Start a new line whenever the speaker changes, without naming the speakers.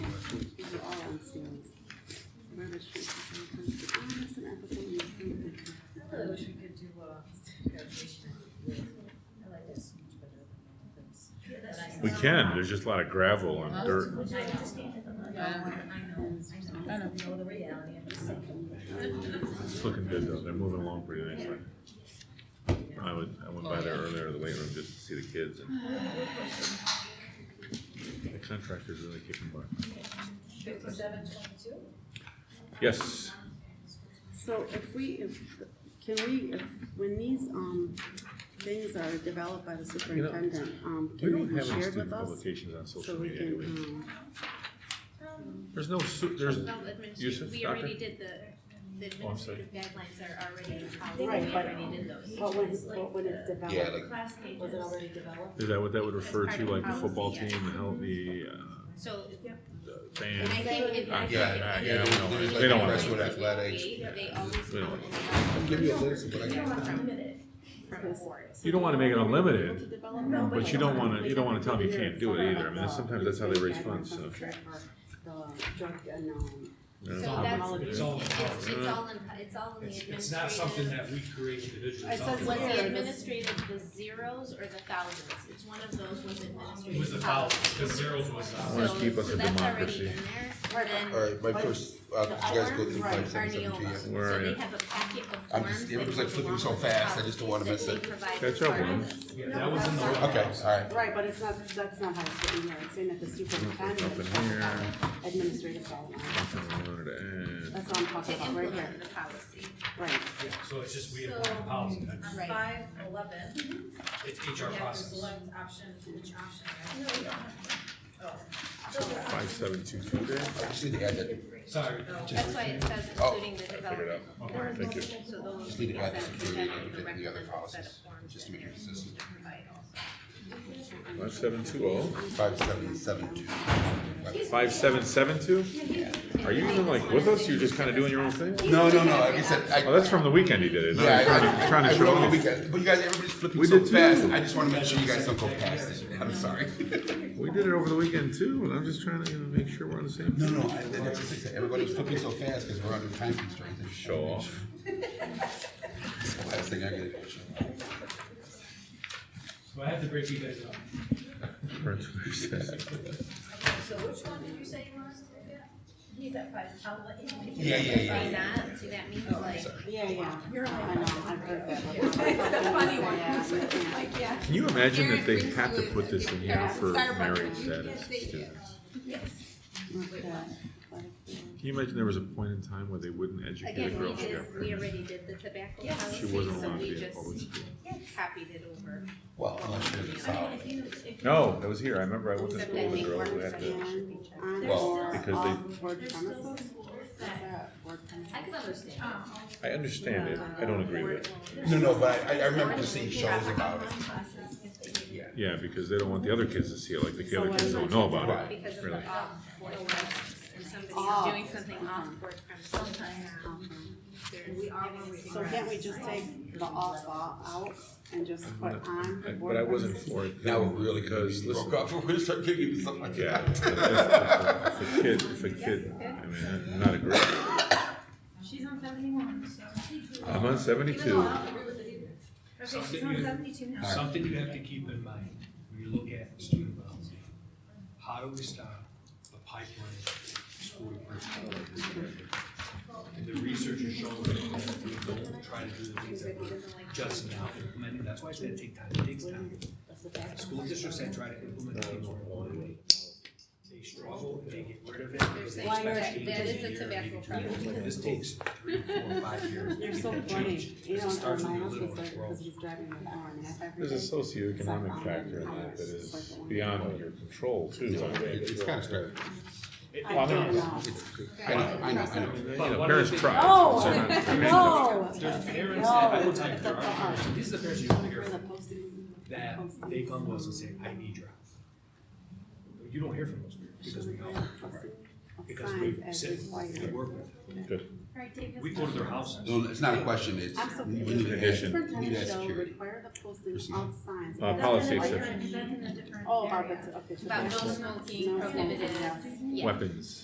uh,
can, there's just a lot of gravel and dirt.
Which I understand for the money, Um, I know, I know, I know the reality, I'm just saying.
It's looking good though, they're moving along pretty nicely. I would, I went by there earlier, the weight room, just to see the kids and. The contractor's really kicking butt.
Fifty-seven twenty-two?
Yes,
So if we, if, can we, if, when these, um, things are developed by the superintendent, um,
we
can they
don't
be
have any
shared
student
with us?
publications on
So
social
we
media
can,
anyway.
um,
There's no, su- there's,
No,
Yusuf,
administrative, we
doctor?
already did the, the
Oh, I'm sorry.
administrative guidelines are already in policy, we
Right, but- Oh.
already did those.
but when, but when it's
Yeah,
developed,
like-
Class
was it
pages,
already developed?
is that what that would refer
That's
to,
part
like
of
the
the
football team,
policy,
the health, the,
so,
uh, the
and I
band?
think if, I think.
Yeah,
nah,
if you
Uh, yeah,
look
we don't
at the
want it.
guidelines
They don't want
it.
that
That's what
we
athletics-
create, They always
We don't want
come in and
Give me a list, but I
out
can.
from, from boards.
You don't wanna make it unlimited,
No,
but you don't wanna, you don't wanna tell them you can't do it either, I mean, that's- sometimes that's how they raise funds, so.
The drug and, um,
you
So
know?
all
that's,
about-
it's,
It's all about-
it's it's all in, it's all in the
It's,
administrative.
um, it's not something that we create individually.
I
It's all
said
Was
Yeah,
the
this-
administrative the zeros or the thousands? It's one of those was
It
administrative.
was the policy, because zeros was,
I
uh,
wanna
So-
keep us
so
a
that's
democracy.
already in there, and then
Alright, my first, uh,
the
you guys go
alarms
through
are
five, seven, seven, two,
Neola.
yeah.
Where
So
are
they
you?
have a packet of
I'm
forms
just-
that
it was
go
like flipping
along
so
with the
fast, I just don't wanna
policies
miss
that
it.
they provide
Catch
as
up,
part of
woman.
this.
yeah, that was in the.
Okay, alright.
right, but it's not, that's not how it's written here, it's saying that the superintendent
Up in
shall
here.
have administrative guidelines,
I wanted to add-
that's what I'm talking
To
about, right
implement
here,
the policy.
right.
Yeah, So it's just we have
So-
one policy, that's-
On
Right.
five eleven,
it's
you
HR
have to
process.
select option, which option, right?
Five, seven, two, two there?
I just need to add that,
Sorry,
That's why it says
Oh,
including the development of
Okay,
forms.
thank you.
So those.
Just leave it at
that
security,
present the
like it did in the
recommended
other
set of
policies,
forms
just
that
to make it
they're
consistent.
to provide also.
Five, seven, two, oh.
five, seven, seven, two.
Five, seven, seven, two? Are you even like with us? You're just kinda doing your own thing?
No, no, no, like I said, I.
Oh, that's from the weekend he did it. No,
Yeah,
he's
I-
trying to,
I-
trying
I
to
wrote
show
on the
off.
weekend, But you guys, everybody's flipping
We
so
did too.
fast, I just wanna make sure you guys don't go past it, I'm sorry.
We did it over the weekend too, and I'm just trying to you know, make sure we're on the same.
No, no, I, that's just, it. everybody was flipping so fast, cause we're under time constraints. I just
Show
wanna make
off.
sure. It's the Last thing I get.
so I have to break you guys up.
So which one did you say you wanted to look at? He's at five eleven.
Yeah, yeah, yeah,
By
yeah. Oh,
that, that means like,
Yeah, yeah. I know, I've heard that.
It's a funny one.
Yeah, I can't.
Can you imagine that they have to put this in here for married status students?
Okay.
Can you imagine there was a point in time where they wouldn't educate a
again,
girl
we
who
did,
got
we
pregnant?
already did the tobacco
She
policy,
wasn't
so
allowed to
we
be in public
just
school.
copied it over.
Well, unless you're the south.
No, that was here. I remember I went to
Except
school
that
with a
they
girl who
weren't
had to.
session.
On
Well,
or
because
off
they-
word
There's still
premises?
schools
Is
that,
that word premises?
I can understand.
I understand it. I don't agree with it.
No, no, but I, I remember just seeing shows about it.
classes, if they
Yeah.
Yeah, because they don't want the other kids to see it, like the other kids don't know about it.
Because of
Really.
the um, off board, if
Oh. Mm-hmm.
somebody's doing something off board from sometimes, they're giving us.
So can't we just take the off off out and just put on?
I-
word
But I wasn't
premises?
for it.
Now we're really
Because,
because
listen,
broke up. We're gonna start getting into something like
Yeah,
that.
if, if- if a kid, if a kid, I mean, I'm not a great.
She's on seventy-one, so.
I'm on
Even though
seventy-two.
I don't agree with it either. Okay, she's
Something
on
you-
seventy-two now.
Something you have to keep in mind when you look at student policy. How do we stop the pipeline of school personnel? And the research is showing that if we don't try to do the things that we're just now implementing, that's why it's gonna take time, it takes time. School districts that try to implement things are one They struggle, they get rid of it.
They're
they
saying
expect
that-
changes
that is a tobacco
every year, maybe two
product.
years. This takes three, four, five years to
You're
get
so
that
funny.
changed.
You
Because it
don't
starts with
remind
your
us
little
with that
world.
because he's driving the car and half every
There's a
day.
socioeconomic factor in that that is beyond your control too.
It's kind of scary.
I
Well,
don't
no.
know.
I know, I know, I know.
You
But
know,
one
parents
of the-
try.
Oh,
So not- I mean,
no.
There's parents
No,
that I will
it's
tell you,
up
there
to
are parents,
us.
these are the parents you don't hear
For the
from,
posting.
that they come to us and say, I need your help. But You don't hear from those parents because we know, because
Signs
we
as
sit, we
required.
work with them.
Good.
We go to their houses.
No, it's not a question. It's
I'm so.
we need to add- we need to
Superintendent
add
shall
security.
require the posting
There's no-
of signs.
Uh,
That's
policy
in a
exception.
different-
That's in a different
Oh, about
area.
the, okay. so
About no
that's-
smoking,
No smoking,
prohibited,
yes.
yeah.
Weapons.